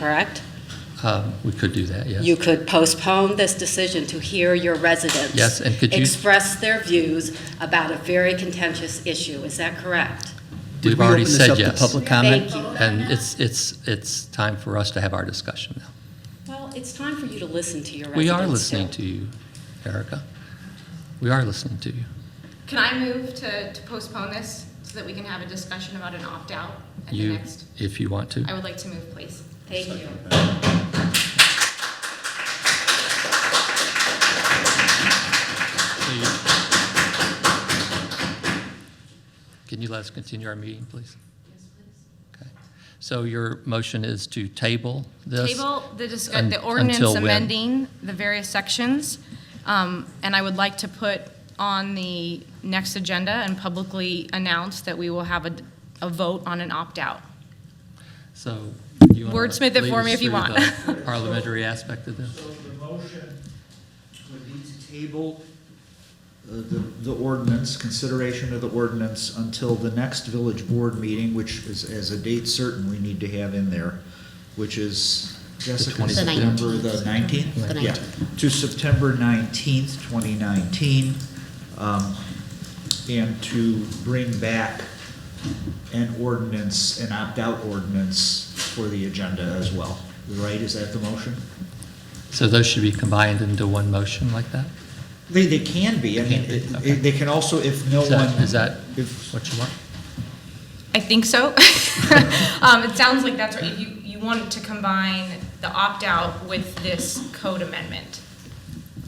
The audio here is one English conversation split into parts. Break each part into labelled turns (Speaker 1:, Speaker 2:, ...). Speaker 1: correct?
Speaker 2: Um, We could do that, yes.
Speaker 1: You could postpone this decision to hear your residents.
Speaker 2: Yes, and could you-
Speaker 1: Express their views about a very contentious issue, is that correct?
Speaker 2: We've
Speaker 3: we
Speaker 2: already
Speaker 3: open this
Speaker 2: said
Speaker 3: up to
Speaker 2: yes.
Speaker 3: public
Speaker 1: comment? Thank you.
Speaker 2: And it's, it's, it's time for us to have our discussion now.
Speaker 1: Well, it's time for you to listen to your residents.
Speaker 2: We are listening
Speaker 1: too.
Speaker 2: to you, Erica. We are listening to you.
Speaker 4: Can I move to to postpone this so that we can have a discussion about an opt-out at the
Speaker 2: You,
Speaker 4: next?
Speaker 2: if you want
Speaker 4: I
Speaker 2: to.
Speaker 4: would like to move, please.
Speaker 1: Thank you.
Speaker 2: So you- Can you let us continue our meeting, please? Okay. So your motion is to table this?
Speaker 4: Table the
Speaker 2: un-
Speaker 4: discuss, the ordinance
Speaker 2: until when?
Speaker 4: amending the various sections. um, And I would like to put on the next agenda and publicly announce that we will have a, a vote on an opt-out.
Speaker 2: So you want to
Speaker 4: Wordsmith it
Speaker 2: lead
Speaker 4: for
Speaker 2: us
Speaker 4: me if you
Speaker 2: through
Speaker 4: want.
Speaker 2: the parliamentary aspect of this?
Speaker 5: So the motion would be to table uh, the, the ordinance, consideration of the ordinance until the next village board meeting, which is, as a date certain, we need to have in there, which is Jessica,
Speaker 2: 20th. The
Speaker 5: September the nineteenth?
Speaker 2: The
Speaker 5: Yeah, to September nineteenth, twenty nineteen. um, And to bring back an ordinance, an opt-out ordinance for the agenda as well. Right, is that the motion?
Speaker 2: So those should be combined into one motion like that?
Speaker 5: They, they can be, I mean,
Speaker 2: Can be,
Speaker 5: it-
Speaker 2: okay.
Speaker 5: it- they can also, if no
Speaker 2: Is that-
Speaker 5: one.
Speaker 2: is that
Speaker 5: if-
Speaker 2: what you want?
Speaker 4: I think so. Um, It sounds like that's right. You, you want to combine the opt-out with this code amendment.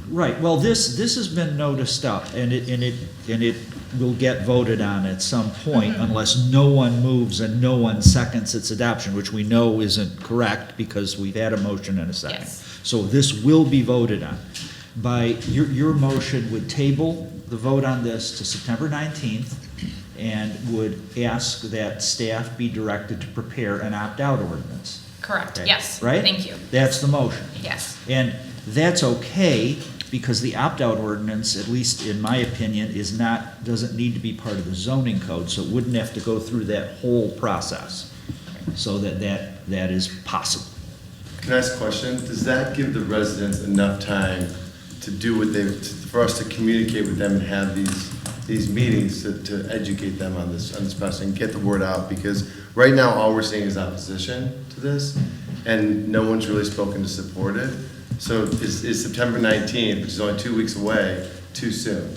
Speaker 5: Right, well, this, this has been noticed up, and it, and it, and it will get voted on at some point unless no one moves and no one seconds its adoption, which we know isn't correct because we've had a motion and a second.
Speaker 4: Yes.
Speaker 5: So this will be voted on. By, your, your motion would table the vote on this to September nineteenth and would ask that staff be directed to prepare an opt-out ordinance.
Speaker 4: Correct,
Speaker 5: Okay.
Speaker 4: yes.
Speaker 5: Right?
Speaker 4: Thank you.
Speaker 5: That's the motion.
Speaker 4: Yes.
Speaker 5: And that's okay, because the opt-out ordinance, at least in my opinion, is not, doesn't need to be part of the zoning code, so it wouldn't have to go through that whole process. So that, that, that is possible.
Speaker 6: Can I ask a question? Does that give the residents enough time to do what they, for us to communicate with them and have these, these meetings to, to educate them on this, on this process and get the word out? Because right now, all we're seeing is opposition to this, and no one's really spoken to support it. So is, is September nineteenth, which is only two weeks away, too soon?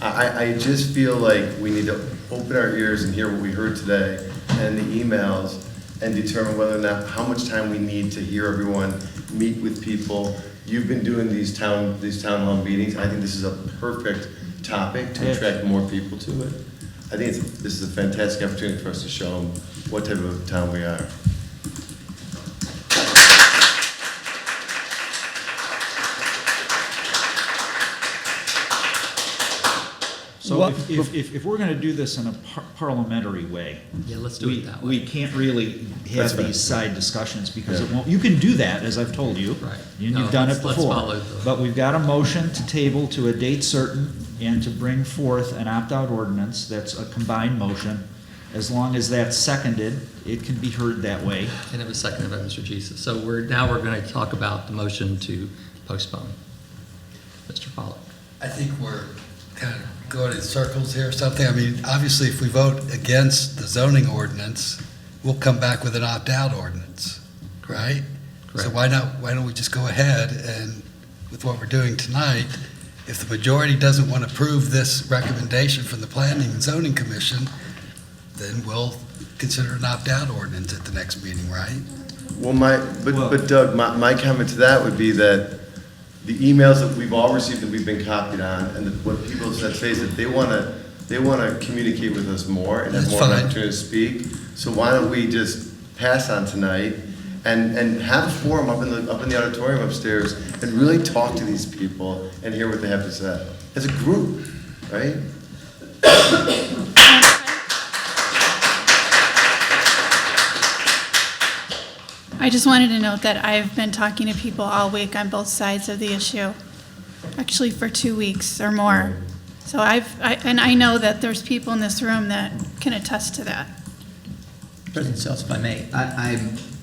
Speaker 6: I, I, I just feel like we need to open our ears and hear what we heard today and the emails and determine whether or not, how much time we need to hear everyone, meet with people. You've been doing these town, these town hall meetings. I think this is a perfect topic to attract more people to it. I think it's, this is a fantastic opportunity for us to show them what type of town we are.
Speaker 5: So
Speaker 3: Well,
Speaker 5: if, if, if- if we're gonna do this in a par- parliamentary way.
Speaker 2: Yeah, let's do
Speaker 5: we-
Speaker 2: it that
Speaker 5: We
Speaker 2: way.
Speaker 5: can't really
Speaker 6: That's
Speaker 5: have
Speaker 6: fine.
Speaker 5: these side discussions, because it
Speaker 6: Yeah.
Speaker 5: won't, you can do that, as I've told you.
Speaker 2: Right.
Speaker 5: And
Speaker 2: No,
Speaker 5: you've done it
Speaker 2: let's- let's
Speaker 5: before.
Speaker 2: follow the-
Speaker 5: But we've got a motion to table to a date certain and to bring forth an opt-out ordinance, that's a combined motion. As long as that's seconded, it can be heard that way.
Speaker 2: And it was seconded by Mr. Jesus. So we're, now we're going to talk about the motion to postpone. Mr. Pollak.
Speaker 7: I think we're kind of going in circles here or something. I mean, obviously, if we vote against the zoning ordinance, we'll come back with an opt-out ordinance, right? So
Speaker 2: Correct.
Speaker 7: why not, why don't we just go ahead and, with what we're doing tonight, if the majority doesn't want to approve this recommendation from the Planning and Zoning Commission, then we'll consider an opt-out ordinance at the next meeting, right?
Speaker 6: Well, my, but,
Speaker 5: Well-
Speaker 6: but Doug, my, my comment to that would be that the emails that we've all received that we've been copied on and that what people have said today is that they want to, they want to communicate with us more and have
Speaker 7: That's
Speaker 6: more of an
Speaker 7: fine.
Speaker 6: opportunity to speak. So why don't we just pass on tonight and, and have a forum up in the, up in the auditorium upstairs and really talk to these people and hear what they have to say as a group, right?
Speaker 8: I just wanted to note that I've been talking to people all week on both sides of the issue, actually for two weeks or more. So I've, I- and I know that there's people in this room that can attest to that.
Speaker 3: President Seltz, if I may, I, I'm